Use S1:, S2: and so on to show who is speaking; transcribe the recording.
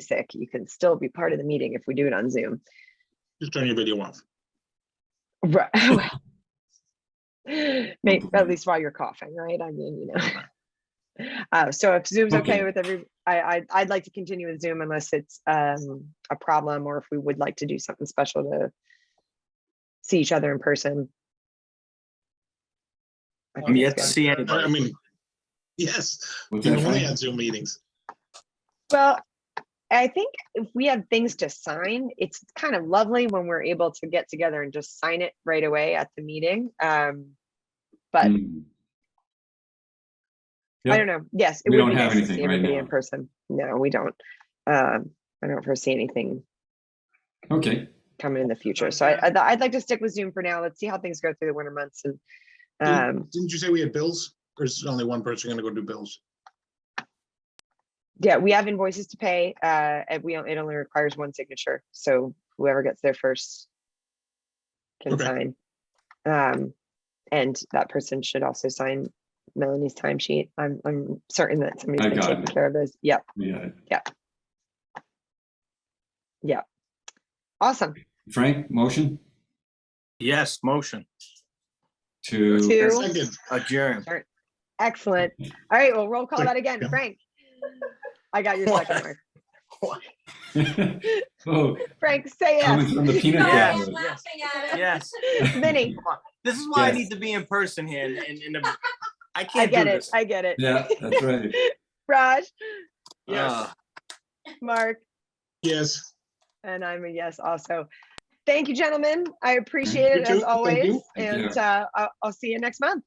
S1: sick, you can still be part of the meeting if we do it on Zoom.
S2: Just turn your video off.
S1: Right. May at least while you're coughing, right? I mean, you know. Uh, so if Zoom's okay
S3: Okay.
S1: with every, I, I, I'd like to continue with Zoom unless it's, um, a problem or if we would like to do something special to see each other in person. I
S2: I'm
S3: Um,
S1: think
S4: yet to
S1: that's good.
S4: see
S2: I I
S4: anybody.
S2: mean, yes,
S3: Was
S2: we
S3: that
S2: only
S3: fine?
S2: had Zoom meetings.
S1: Well, I think if we have things to sign, it's kind of lovely when we're able to get together and just sign it right away at the meeting. Um, but
S3: Mm.
S1: I
S3: Yep.
S1: don't know. Yes, it
S3: We
S1: would
S3: don't
S1: be
S3: have
S1: nice to see
S3: anything right
S1: everybody in
S3: now.
S1: person. No, we don't. Um, I don't foresee anything
S3: Okay,
S1: coming in the future. So I, I'd, I'd like to stick with Zoom for now. Let's see how things go through the winter months and, um,
S2: Didn't didn't you say we had bills? Or is only one person gonna go do bills?
S1: yeah, we have invoices to pay, uh, and we, don't- it only requires one signature. So whoever gets there first can
S2: Okay.
S1: sign. Um, and that person should also sign Melanie's timesheet. I'm, I'm certain that somebody's
S3: I
S1: been
S3: got
S1: taking
S3: it.
S1: care of those. Yep.
S3: yeah.
S1: Awesome.
S3: Frank, motion
S4: Yes, motion
S3: to,
S1: Two.
S2: Second,
S4: adjourn.
S1: Excellent. All right, well, roll call
S2: Like,
S1: that again.
S2: yeah.
S1: Frank? I got your second one.
S3: oh,
S1: Frank, say
S3: coming from the
S1: yes.
S3: peanut
S4: Yeah.
S3: gallery.
S5: laughing at it.
S4: Yes,
S1: Minnie,
S4: this is why I
S3: Yes.
S4: need to be in person here and, and, and I
S1: I
S4: can't do
S1: get it,
S4: this.
S1: I get it.
S3: Yeah, that's right.
S1: Raj,
S4: Yes.
S1: Mark,
S2: yes.
S1: and I'm a yes also. Thank you, gentlemen. I appreciate
S2: You
S1: it
S2: too.
S1: as
S2: Thank
S1: always.
S2: you.
S3: Thank you.
S1: And uh, I'll I'll see you next month.